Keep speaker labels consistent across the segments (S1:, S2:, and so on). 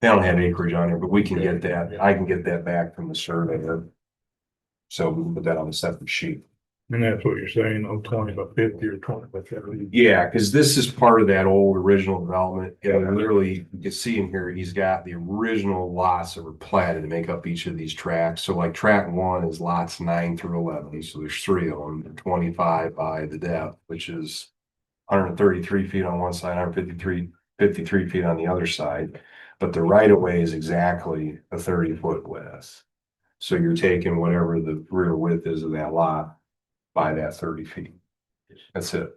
S1: They don't have acreage on it, but we can get that.
S2: Yeah.
S1: I can get that back from the surveyor. So we can put that on a separate sheet.
S2: And that's what you're saying, oh, twenty by fifty or twenty by seventy.
S1: Yeah, because this is part of that old original development. And literally, you can see in here, he's got the original lots that were platted to make up each of these tracks. So like track one is lots nine through eleven, so there's three of them, They're twenty-five by the depth, which is hundred and thirty-three feet on one side, 153 53 feet on the other side. But the right of way is exactly a thirty-foot width. So you're taking whatever the rear width is of that lot by that thirty feet. That's it.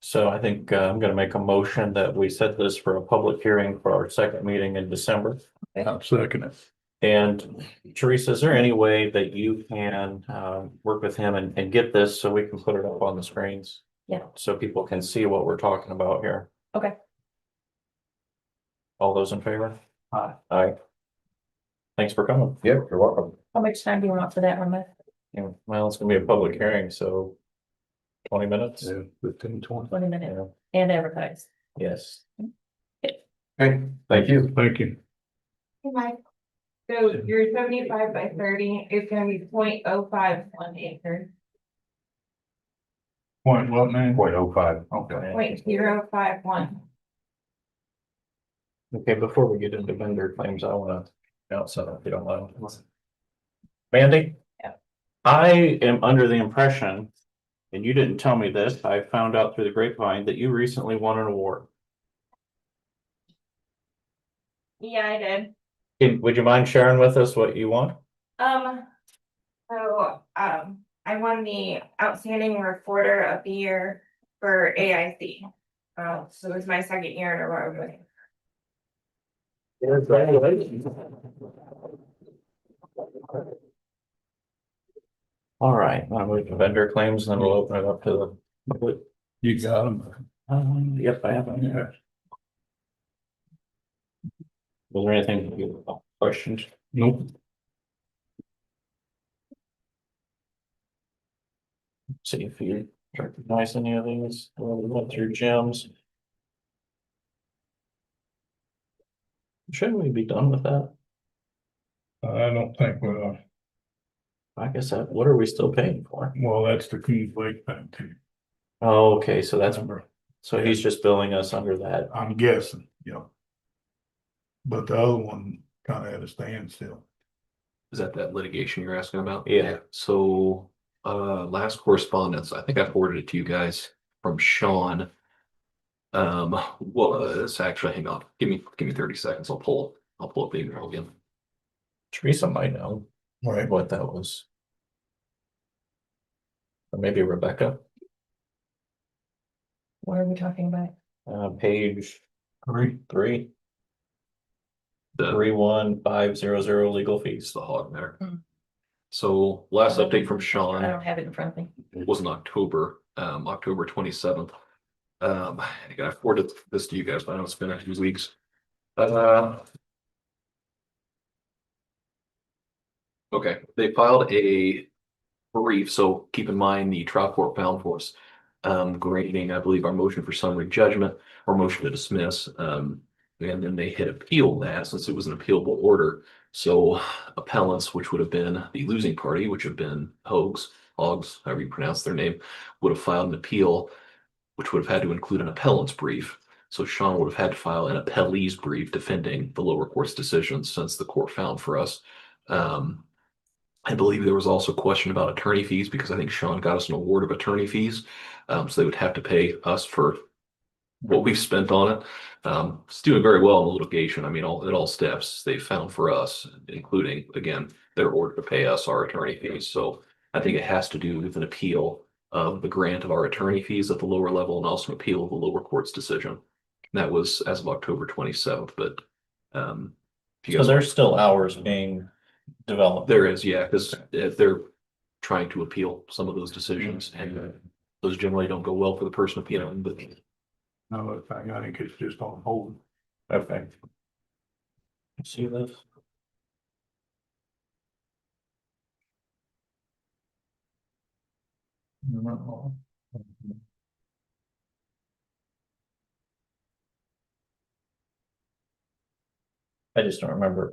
S3: So I think uh, I'm gonna make a motion that we set this for a public hearing for our second meeting in December.
S2: I'm second it.
S3: And Teresa, is there any way that you can um work with him and and get this so we can put it up on the screens?
S4: Yeah.
S3: So people can see what we're talking about here.
S4: Okay.
S3: All those in favor? Aye. Aye. Thanks for coming.
S1: Yep, you're welcome.
S4: How much time do you want for that one, Matt?
S3: Yeah, Well, it's gonna be a public hearing, so twenty minutes.
S2: Yeah, fifteen, twenty.
S4: Twenty minutes
S3: Yeah.
S4: and advertise.
S3: Yes.
S1: Okay, thank you.
S2: Thank you.
S5: Hey, Mike. So your seventy-five by thirty is gonna be 0.05 one acre,
S2: Point what name?
S1: Point oh five. Okay.
S5: point zero five one.
S3: Okay, before we get into vendor claims, I wanna, announce something if you don't mind. Mandy?
S5: Yeah.
S3: I am under the impression, and you didn't tell me this, I found out through the grapevine that you recently won an award.
S5: Yeah, I did.
S3: Can- Would you mind sharing with us what you won?
S5: Um, so, um, I won the outstanding reporter of the year for AIC. Uh, so it was my second year in a row. winning.
S3: All right, I'll move to vendor claims, and then we'll open it up to the public.
S2: You got him.
S3: Um, yep, I have. them here. Was there anything you questioned?
S2: Nope.
S3: See if you recognize any of these, Well, we went through gems. Shouldn't we be done with that?
S2: I don't think, uh, well,
S3: I guess that, what are we still paying for?
S2: well, that's the Kings Lake thing too.
S3: Oh, okay, so that's,
S2: Remember,
S3: so he's just billing us under that.
S2: I'm guessing, you know. But the other one kind of at a standstill.
S6: Is that that litigation you're asking about?
S3: Yeah.
S6: So, uh, last correspondence, I think I forwarded it to you guys from Sean. Um, was actually, hang on, give me, give me thirty seconds. I'll pull, I'll pull up the email again.
S3: Teresa might know
S2: Right.
S3: what that was. Or maybe Rebecca,
S4: What are we talking about?
S3: uh, page
S2: Great.
S3: three,
S6: The,
S3: three, one, five, zero, zero, legal fees.
S6: it's the hog there.
S4: Hmm.
S6: So last
S4: Okay.
S6: update from
S4: I
S6: Sean
S4: don't have it in front of me.
S6: was in October, um, October twenty seventh. Um, again, I forwarded this to you guys, but I know it's been a few weeks. Uh, Okay, they filed a brief, so keep in mind the trial court found for us. Um, grading, I believe, our motion for summary judgment or motion to dismiss. Um, and then they had appealed that since it was an appealable order. So appellants, which would have been the losing party, which have been Hogs, Hogs, however you pronounce their name, would have filed an appeal, which would have had to include an appellant's brief. So Sean would have had to file an appellee's brief defending the lower court's decision since the court found for us. Um, I believe there was also a question about attorney fees because I think Sean got us an award of attorney fees. Um, so they would have to pay us for what we've spent on it. Um, it's doing very well in the litigation. I mean, all, at all steps, they found for us, including, again, their order to pay us our attorney fees. So I think it has to do with an appeal of the grant of our attorney fees at the lower level and also an appeal of the lower court's decision. That was as of October twenty-seventh, but, um. if you
S3: So
S6: guys-
S3: there's still hours being developed.
S6: there is, yeah, because they're trying to appeal some of those decisions and those generally don't go well for the person appealing, but
S2: No, I think- I think it's just on hold.
S3: Okay. See this? No. I just don't remember